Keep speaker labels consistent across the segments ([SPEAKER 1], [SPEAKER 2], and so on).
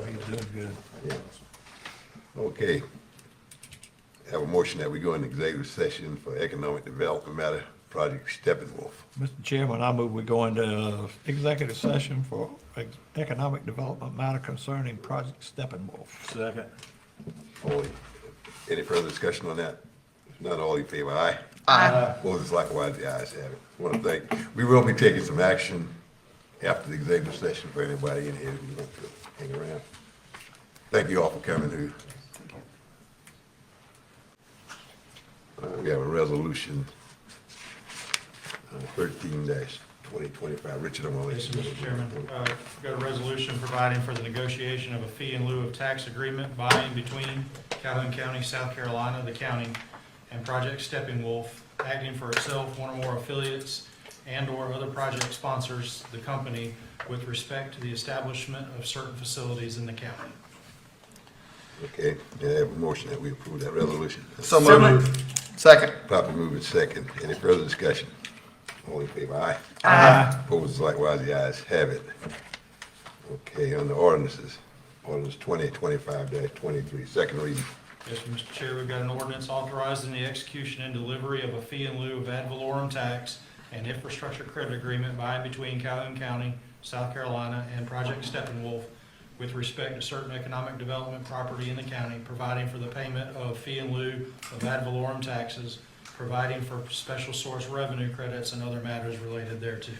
[SPEAKER 1] Good, good.
[SPEAKER 2] Okay. Have a motion that we go in executive session for economic development matter, Project Steppenwolf.
[SPEAKER 1] Mr. Chairman, I move we go into uh, executive session for ex- economic development matter concerning Project Steppenwolf.
[SPEAKER 3] Second.
[SPEAKER 2] All in- Any further discussion on that? If Not all in favor, aye? Aye. Opposed, likewise, the ayes have it. Want to thank, we will be taking some action after the executive session for anybody in here who wants to hang around. Thank you all for coming through. Uh, We have a resolution, uh, thirteen twenty twenty-five. Richard, I'm gonna
[SPEAKER 4] Yes,
[SPEAKER 2] let you.
[SPEAKER 4] Mr. Chairman, Uh, we've got a resolution providing for the negotiation of a fee in lieu of tax agreement by and between Calhoun County, South Carolina, the county, and Project Stepping Wolf, acting for itself, one or more affiliates, and/or other project sponsors, the company, with respect to the establishment of certain facilities in the county.
[SPEAKER 2] Okay, may I have a motion that we approve that resolution?
[SPEAKER 5] So moved. Second.
[SPEAKER 2] Proper moving second. Any further discussion? All in favor, aye?
[SPEAKER 5] Aye.
[SPEAKER 2] Opposed, likewise, the ayes have it. Okay, on the ordinances, ordinance twenty twenty-five dash twenty-three, second reading.
[SPEAKER 4] Yes, Mr. Chair, we've got an ordinance authorizing the execution and delivery of a fee in lieu of ad valorem tax and infrastructure credit agreement by and between Calhoun County, South Carolina, and Project Steppenwolf with respect to certain economic development property in the county, providing for the payment of fee in lieu of ad valorem taxes, providing for special source revenue credits and other matters related thereto.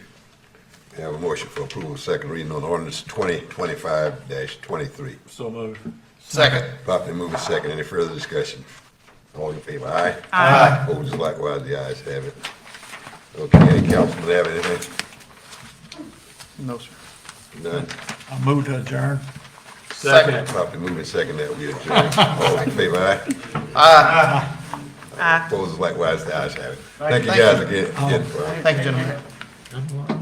[SPEAKER 2] May I have a motion for approval, of second reading on ordinance twenty twenty-five dash twenty-three.
[SPEAKER 3] So moved.
[SPEAKER 5] Second.
[SPEAKER 2] Properly moving second. Any further discussion? All in favor, aye? Aye. Opposed, likewise, the ayes have it. Okay, councilman, have anything?
[SPEAKER 5] No, sir.
[SPEAKER 2] None?
[SPEAKER 1] I move to adjourn.
[SPEAKER 5] Second.
[SPEAKER 2] Properly moving second that we adjourn. All in favor, aye? Aye. Opposed, likewise, the ayes have it. Thank you guys again, again for
[SPEAKER 5] Thank you, gentlemen.
[SPEAKER 1] Good one.